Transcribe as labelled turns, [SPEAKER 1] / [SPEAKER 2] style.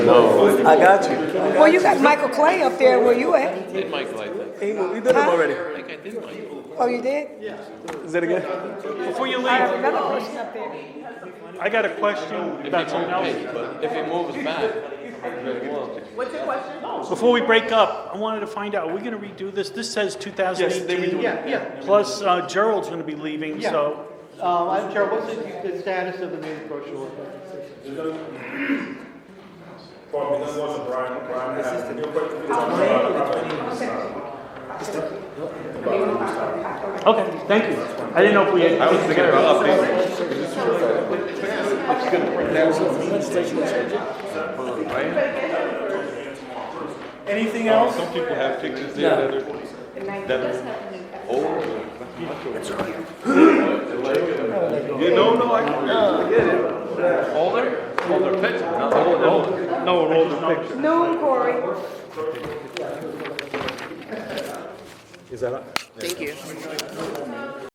[SPEAKER 1] No.
[SPEAKER 2] I got you.
[SPEAKER 3] Well, you got Michael Clay up there where you at.
[SPEAKER 1] I did Michael, I think.
[SPEAKER 2] Hey, we did it already.
[SPEAKER 1] I think I did Michael.
[SPEAKER 3] Oh, you did?
[SPEAKER 2] Is that again?
[SPEAKER 4] Before you
[SPEAKER 3] I have
[SPEAKER 4] leave,
[SPEAKER 3] another person up there.
[SPEAKER 4] I got a question
[SPEAKER 1] If
[SPEAKER 4] about
[SPEAKER 1] he
[SPEAKER 4] something
[SPEAKER 1] moved,
[SPEAKER 4] else.
[SPEAKER 1] hey, but if he moves back, then what?
[SPEAKER 4] Before we break up, I wanted to find out, are we gonna redo this? This says two thousand
[SPEAKER 5] Yes, they redo it.
[SPEAKER 4] eighteen.
[SPEAKER 5] Yeah, yeah.
[SPEAKER 4] Plus uh, Gerald's gonna be leaving,
[SPEAKER 5] Yeah.
[SPEAKER 4] so.
[SPEAKER 5] Um, I'm Chair, what's the the status of the main brochure?
[SPEAKER 6] Well, this wasn't Brian, Brian had, your question was on, uh,
[SPEAKER 4] Okay, thank you. I didn't know if we had. I was thinking about
[SPEAKER 5] Anything else?
[SPEAKER 7] People have pictures there that are, you know, no, I can
[SPEAKER 1] Older? Older picture, not older.
[SPEAKER 7] No, an older picture.
[SPEAKER 3] Noon, Corey.
[SPEAKER 2] Is that up?